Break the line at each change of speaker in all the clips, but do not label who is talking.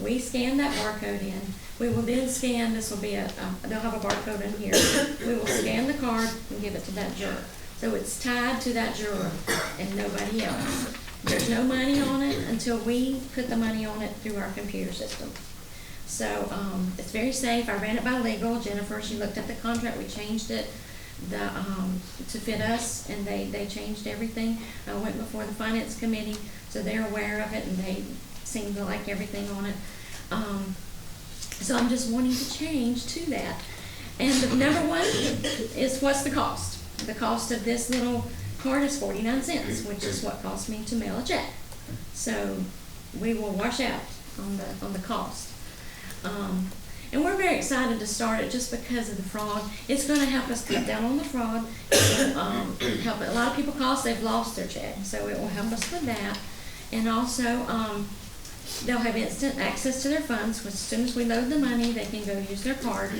We scan that barcode in. We will then scan, this will be a, um, they'll have a barcode in here. We will scan the card and give it to that juror. So it's tied to that juror and nobody else. There's no money on it until we put the money on it through our computer system. So, um, it's very safe. I ran it by legal. Jennifer, she looked at the contract. We changed it, the, um, to fit us and they, they changed everything. I went before the finance committee, so they're aware of it and they seem to like everything on it. Um, so I'm just wanting to change to that. And the number one is what's the cost? The cost of this little card is forty-nine cents, which is what cost me to mail a check. So we will wash out on the, on the cost. Um, and we're very excited to start it just because of the fraud. It's gonna help us cut down on the fraud. It'll, Um, help, a lot of people call us, they've lost their check, so it will help us with that. And also, um, they'll have instant access to their funds. As soon as we load the money, they can go use their card.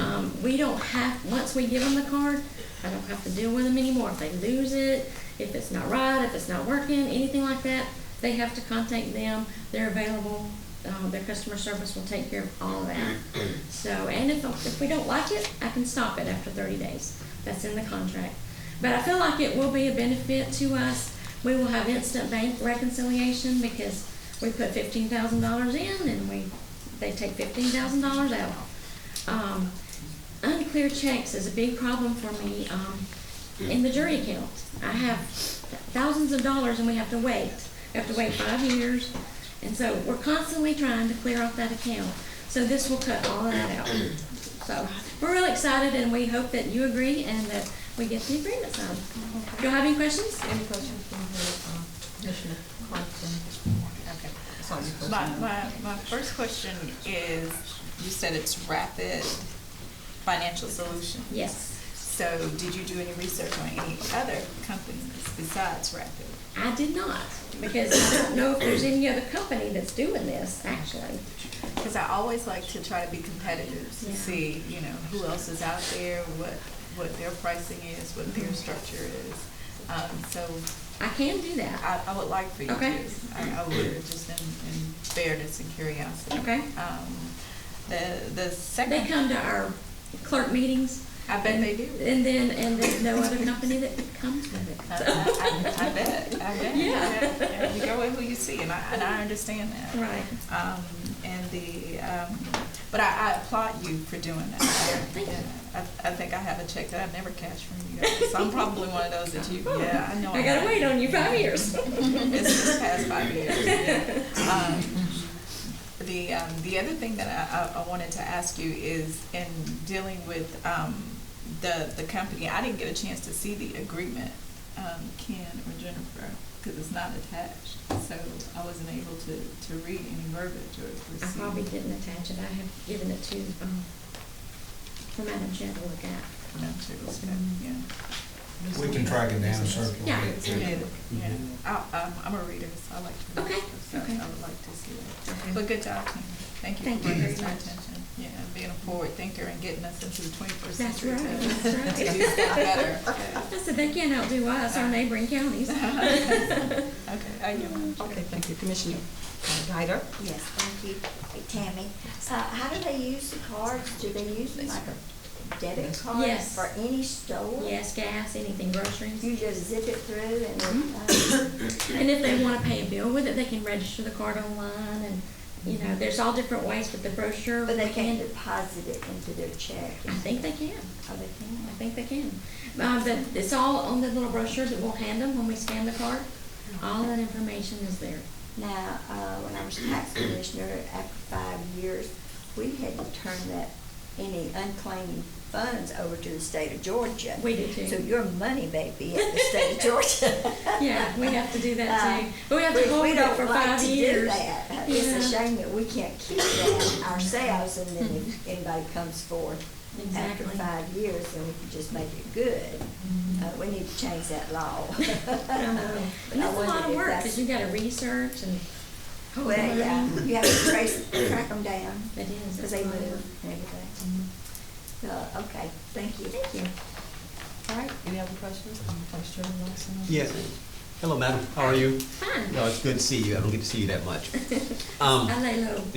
Um, we don't have, once we give them the card, I don't have to deal with them anymore. If they lose it, if it's not right, if it's not working, anything like that, they have to contact them. They're available. Uh, their customer service will take care of all of that. So, and if, if we don't like it, I can stop it after thirty days. That's in the contract. But I feel like it will be a benefit to us. We will have instant bank reconciliation because we put fifteen thousand dollars in and we, they take fifteen thousand dollars out. Um, unclear checks is a big problem for me, um, in the jury account. I have thousands of dollars and we have to wait. We have to wait five years. And so we're constantly trying to clear off that account. So this will cut all that out. So we're really excited and we hope that you agree and that we get the agreement signed. Do you have any questions?
Any questions from the uh, Commissioner Clarkson? Okay, so you first.
My, my, my first question is, you said it's Rapid Financial Solutions.
Yes.
So did you do any research on any other companies besides Rapid?
I did not, because I don't know if there's any other company that's doing this, actually.
Because I always like to try to be competitive to
Yeah.
see, you know, who else is out there, what, what their pricing is, what
Mm-hmm.
their structure is. Um, so
I can do that.
I, I would like for you to.
Okay.
I, I would, just in, in fairness and curiosity.
Okay.
Um, the, the second.
They come to our clerk meetings.
I bet they do.
And then, and there's no other company that comes with
I,
it.
I, I bet, I bet.
Yeah. Mm.
You go with who you see, and I, and I understand that.
Right.
Um, and the, um, but I, I applaud you for doing that.
Thank you.
I, I think I have a check that I've never cashed from you guys, so I'm probably one of those that you, yeah, I know.
Oh. I gotta wait on you five years.
It's this past five years, yeah. Um, The, um, the other thing that I, I- I wanted to ask you is in dealing with, um, the, the company, I didn't get a chance to see the agreement, um, Ken or Jennifer, because it's not attached, so I wasn't able to, to read any verbiage or
I
receive.
probably didn't attach it. I have given it to, um, for Madam Chair to look at.
No, sure, it's good, yeah.
Mm-hmm.
We can track it down, sir. if you
Yeah.
want.
Yeah, yeah. I, I'm, I'm a reader, so I like to. read,
Okay,
so
okay.
I would like to see that.
Okay.
But good job, Tina. Thank you
Thank
for
you
bringing
very
this to
much.
attention. Yeah, and being a forward thinker and getting us into the twenty-first
That's
century.
right,
too.
that's
To
right.
do something better. Yeah.
I said, they can't outdo us, our neighboring counties.
Okay, I yield.
Okay, thank you, Commissioner Ryder.
Yes, thank you, Tammy. Uh, how do they use the cards? Do they use them like a debit card
Yes.
for any store?
Yes, gas, anything, groceries.
Mm.
You just zip it through and
Mm-hmm.
then, uh,
And if they wanna pay a bill with it, they can register the card online and, you know, there's all different ways with the brochure.
but they
we
can't
can-
deposit it into their check?
I think they can.
Oh, they
I
can?
think they can. Um, but it's all on the little brochures that we'll hand them when we scan the card. All that information is there.
Now, uh, when I was tax commissioner, after five years, we had to turn that, any unclaimed funds over to the state of Georgia.
We did too.
So your money may be at the state of Georgia.
Yeah, we have to do that too.
Uh,
But we have to
we-
hold
we
it
don't
for
like
five
to do
years.
that. Uh, It's a
Yeah.
shame that we can't keep that ourselves and then if anybody comes forth after
Exactly. Mm-hmm.
five years, then we can just make it good. Uh, we need to change that law.
And
But I
it's a lot
wondered
of
if
work,
that's-
cause you gotta research and. hold the
Well, Oh, yeah,
money.
you have to trace, track them down,
It is.
because
it's
they
a lot of
move
work.
and everything. Uh, okay, thank you.
Thank you.
All right, any other questions? Vice Chairman Watson?
Yes. Hello, madam. How are you?
Fine.
No, it's good to see you. I don't get to see you that much. Um,
I lay low.